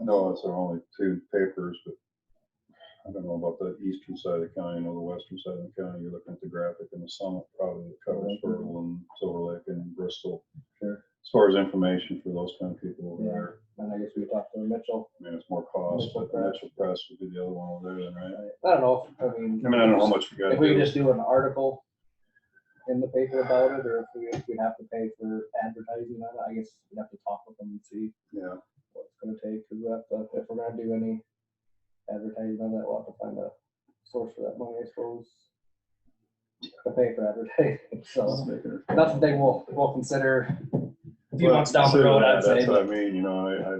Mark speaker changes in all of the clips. Speaker 1: I know it's our only two papers, but I don't know about the eastern side of the county, or the western side of the county, you're looking at the graphic and the summit probably that covers Fertile and Silver Lake and Bristol.
Speaker 2: Sure.
Speaker 1: As far as information for those kind of people over
Speaker 2: Yeah.
Speaker 1: there,
Speaker 2: And I guess we talked to Mitchell.
Speaker 1: I mean, it's more cost,
Speaker 2: Mitchell
Speaker 1: but
Speaker 2: Press.
Speaker 1: Mitchell Press would be the other one over there then, right?
Speaker 2: I don't know, if I mean.
Speaker 1: I mean, I don't know how much we gotta
Speaker 2: If we could
Speaker 1: do.
Speaker 2: just do an article in the paper about it, or if we, if we'd have to pay for advertising on it, I guess we'd have to talk with them and see
Speaker 1: Yeah,
Speaker 2: what it's gonna take, cause we have to, if we're gonna do any advertising on that, we'll have to find a source for that money, I suppose. To pay for advertising, so that's the thing we'll, we'll consider a few
Speaker 1: Well,
Speaker 2: months down the road, I'd
Speaker 1: that's
Speaker 2: say.
Speaker 1: what I mean, you know, I, I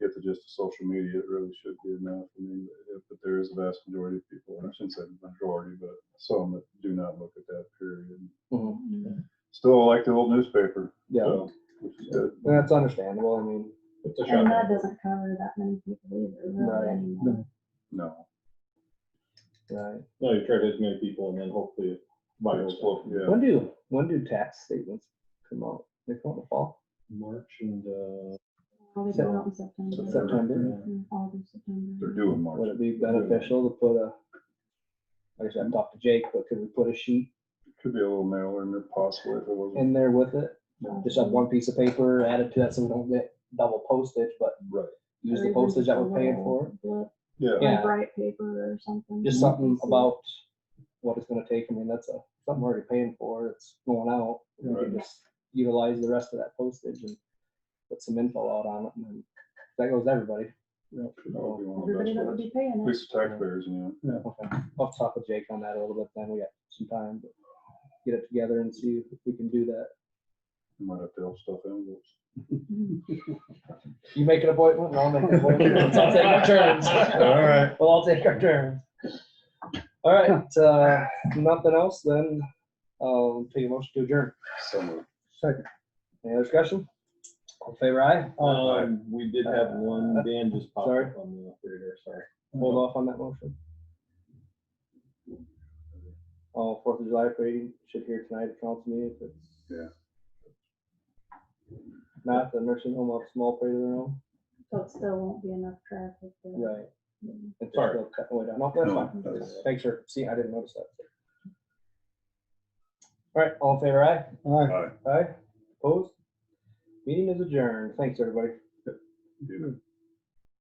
Speaker 1: get the gist of social media, it really should be enough, I mean, but- but there is a vast majority of people, I shouldn't say majority, but some that do not look at that period.
Speaker 2: Mhm.
Speaker 1: Still like the old newspaper,
Speaker 2: Yeah,
Speaker 1: so, which is good.
Speaker 2: that's understandable, I mean,
Speaker 3: And that doesn't cover that many people either,
Speaker 2: Right.
Speaker 3: really, anymore.
Speaker 1: No,
Speaker 2: right.
Speaker 4: No, you try to hit as many people and then hopefully it
Speaker 1: but
Speaker 4: viral.
Speaker 1: it's, well, yeah,
Speaker 2: When do, when do tax statements come out? They come out in the fall?
Speaker 4: March and, uh,
Speaker 3: Probably go out in September,
Speaker 2: September?
Speaker 3: in August,
Speaker 1: they're
Speaker 3: September.
Speaker 1: due in
Speaker 2: Would
Speaker 1: March,
Speaker 2: it be beneficial to put a, I guess I've talked to Jake, but could we put a sheet
Speaker 1: could be a little mailer in there possibly if it wasn't.
Speaker 2: in there with it?
Speaker 3: Yeah.
Speaker 2: Just on one piece of paper, add it to that so we don't get double postage, but
Speaker 1: Right.
Speaker 2: use
Speaker 3: Or
Speaker 2: the
Speaker 3: even
Speaker 2: postage that
Speaker 3: a
Speaker 2: we're paying
Speaker 3: little
Speaker 2: for.
Speaker 3: booklet,
Speaker 1: Yeah,
Speaker 2: Yeah.
Speaker 3: Bright paper or something.
Speaker 2: Just something about what it's gonna take. I mean, that's a, something we're already paying for. It's going out. We
Speaker 1: Right.
Speaker 2: can just utilize the rest of that postage and put some info out on it and then that goes to everybody.
Speaker 1: that would be one of the
Speaker 3: Everybody that
Speaker 1: best
Speaker 3: would
Speaker 1: ways,
Speaker 3: be paying
Speaker 1: at
Speaker 3: it.
Speaker 1: least the taxpayers, you know.
Speaker 2: Yeah, okay. I'll talk with Jake on that a little bit then. We got some time, but get it together and see if we can do that.
Speaker 1: You Might have to help stuff envelopes.
Speaker 2: You make an appointment and I'll make an appointment. Let's all take our turns.
Speaker 4: All right.
Speaker 2: We'll all take our turns. All right, uh, nothing else then. I'll take a motion to adjourn.
Speaker 1: Somewhere.
Speaker 2: Any other discussion? All in favor aye.
Speaker 4: um, we did have one, Dan just popped
Speaker 2: Sorry.
Speaker 4: up on the radar, sorry.
Speaker 2: Hold off on that motion. Oh, Fourth of July parade should hear tonight at council meeting if it's.
Speaker 1: Yeah.
Speaker 2: Not the nursing home of small parade of their own.
Speaker 3: So it still won't be enough traffic. to-
Speaker 2: Right. It's
Speaker 4: Sorry.
Speaker 2: still cut way down. No, that's
Speaker 1: No,
Speaker 2: fine.
Speaker 1: that's-
Speaker 2: Thanks for, see, I didn't notice that. All right, all in favor, aye?
Speaker 1: Aye.
Speaker 2: Aye, opposed? Meeting is adjourned. Thanks, everybody.
Speaker 1: You know.